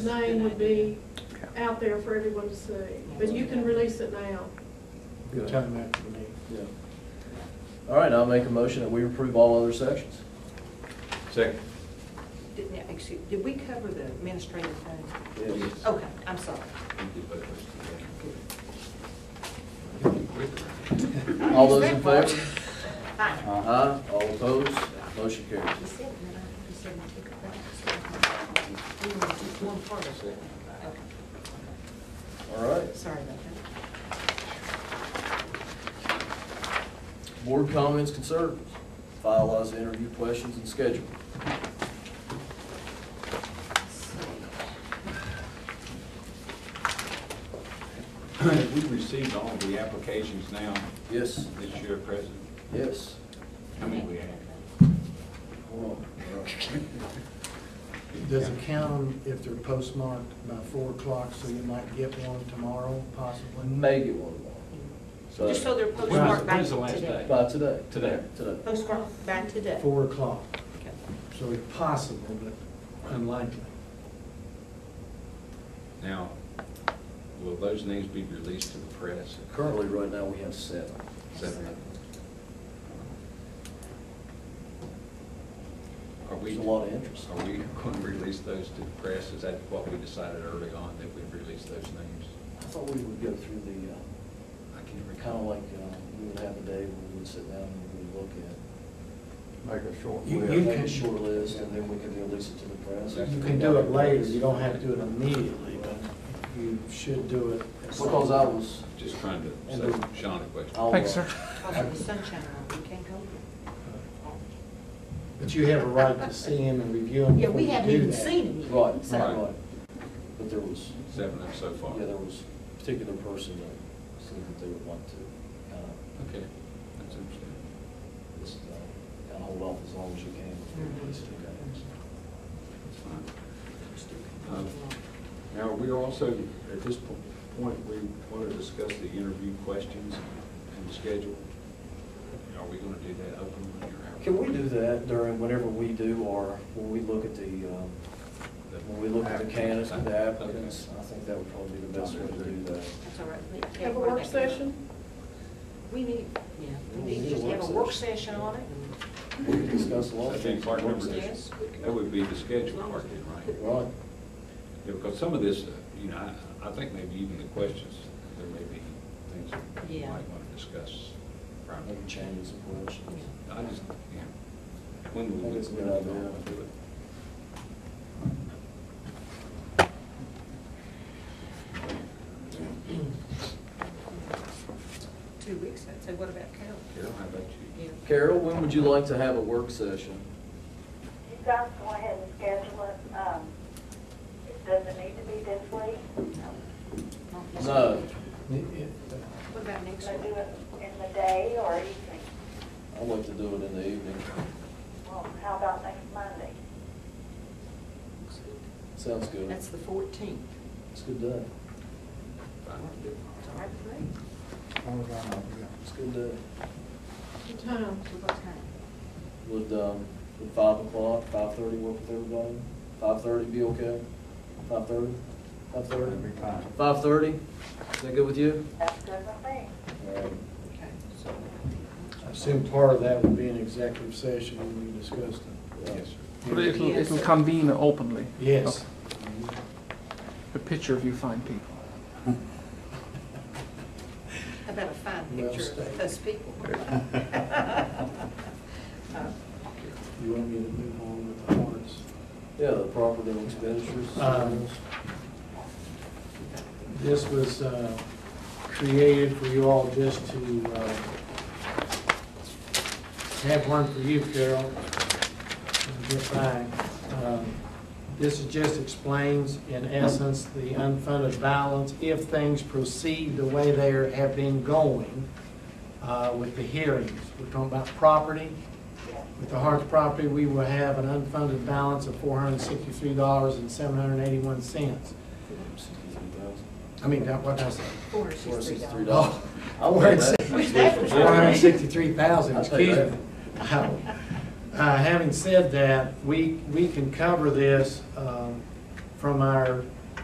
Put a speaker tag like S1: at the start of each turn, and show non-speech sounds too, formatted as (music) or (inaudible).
S1: name would be
S2: Okay.
S1: out there for everyone to see, but you can release it now.
S3: Good time after the meeting.
S4: Yeah. All right, I'll make a motion that we approve all other sections.
S5: Second.
S6: Didn't, that- excuse, did we cover the administrative thing?
S4: Yes.
S6: Okay, I'm sorry.
S4: All those in
S6: Respectful.
S4: favor?
S6: Fine.
S4: Aye, all opposed, motion carries.
S6: He said, and then I- he said, "Well, take it back." So, we were just one part of it. Okay,
S4: All right,
S6: Sorry about that.
S4: board comments, concerns, finalize the interview questions and schedule.
S5: We've received all the applications now
S4: Yes,
S5: this year, President.
S4: yes.
S5: How many we have?
S4: Hold on. All right.
S3: Does (laughs) it count them if they're postmarked by four o'clock, so you might get one tomorrow
S4: We
S3: possibly?
S4: may get one more,
S6: Just so they're
S5: When's-
S6: postmarked by
S5: when's the last
S6: today.
S5: day?
S4: by today.
S5: Today.
S4: Today.
S6: Postmarked by today.
S3: Four o'clock,
S6: Okay.
S3: so it's possible, but unlikely.
S5: Now, will those names be released to the press?
S4: Currently, right now, we have seven.
S5: Seven. Are we?
S4: There's a lot of interest.
S5: Are we (laughs) going to release those to the press? Is that what we decided early on, that we'd release those names?
S4: I thought we would go through the, uh,
S5: I can't
S4: kind
S5: recall.
S4: of like, uh, we would have a day where we would sit down and we would look at.
S7: Make a short
S3: You-
S7: list.
S3: you
S4: Make
S3: can-
S4: a short list, and then we can release it to the press.
S5: That's-
S3: You can do it later, you don't have to do it immediately, but you should do it. at some
S4: Because I was,
S5: Just trying to,
S3: And
S5: so,
S3: we-
S5: Sean, a question.
S4: I'll. uh,
S2: Thanks, sir.
S6: Also, the sunshine, law, we can't go.
S3: But you have a right to see him and review him
S6: Yeah,
S3: before
S6: we
S3: you do that.
S6: haven't even seen him yet.
S4: Right,
S6: so-
S4: right, right. But there was,
S5: Seven of them so far.
S4: yeah, there was a particular person that seemed that they would want to kind of,
S5: Okay, that's understandable.
S4: just, uh, kind of hold off as long as you can. before you
S6: Mm-hmm.
S4: release it, okay?
S5: That's fine. Um, Now, we also, at this po- point, we want to discuss the interview questions and the schedule. Are we going to do that openly or how?
S4: Can we do that during, whenever we do, or when we look at the, um, when we look at the candidates, the applicants? I think that would probably be the best way to do that.
S6: That's all right. We- yeah,
S1: Have a
S6: we're
S1: work
S6: back.
S1: session?
S6: We need, yeah, we need to just have a work session on it.
S4: We can discuss a lot of
S5: That'd be
S4: things. in
S5: part
S4: work
S5: number,
S4: session.
S6: Yes.
S5: that would be the schedule part, then, right?
S4: Right,
S5: Yeah, because some of this, uh, you know, I, I think maybe even the questions, there may be things that we
S6: Yeah.
S5: might want to discuss. privately.
S4: maybe change some questions.
S5: I just, yeah. When do we,
S4: I think
S5: when
S4: it's a
S5: do
S4: good
S5: we
S4: idea.
S5: want to do it?
S6: Two weeks, I'd say, what about Carol?
S5: Carol, how about
S6: Yeah.
S5: you?
S4: Carol, when would you like to have a work session?
S8: You guys go ahead and schedule it, um, it doesn't need to be this week,
S6: Not this
S4: No.
S6: week.
S3: It- it-
S6: What about next
S8: so do
S6: week?
S8: it in the day or evening.
S4: I'd like to do it in the evening.
S8: Well, how about next Monday?
S4: Sounds good.
S6: That's the fourteenth.
S4: It's a good day.
S6: It's all right for me.
S4: It's a good day.
S1: The time.
S6: So what time?
S4: Would, um, would five o'clock, five thirty work with everybody? Five thirty be okay? Five thirty? Five thirty?
S7: That'd be fine.
S4: Five thirty? Is that good with you?
S8: That's good with me.
S4: All right.
S6: Okay, so.
S3: I assume part of that would be an executive session when we discussed it.
S5: Yes, sir.
S2: But it'll,
S6: Yes.
S2: it'll convene openly.
S3: Yes.
S2: Okay. A picture of you fine people.
S6: How about a fine
S3: Well
S6: picture of
S3: stated.
S6: us people? (laughs) Uh,
S3: You want me to move on with the warrants?
S4: Yeah, the property and expenditures.
S3: Um, This was uh, created for you all just to uh, have one for you, Carol. and Get back. Um, This is just explains, in essence, the unfunded balance if things proceed the way they are- have been going uh, with the hearings. We're talking about property,
S8: Yes.
S3: with the Harts property, we will have an unfunded balance of four hundred and sixty-three dollars and seven hundred and eighty-one cents. I mean, that what I said.
S6: Four or
S4: Four
S6: six,
S4: sixty-three
S6: three
S4: dollars.
S6: dollars.
S4: Oh, I wanted
S3: Four hundred and sixty-three thousand,
S4: I'll take
S3: excuse
S4: that.
S3: me. Uh, Having said that, we, we can cover this um, from our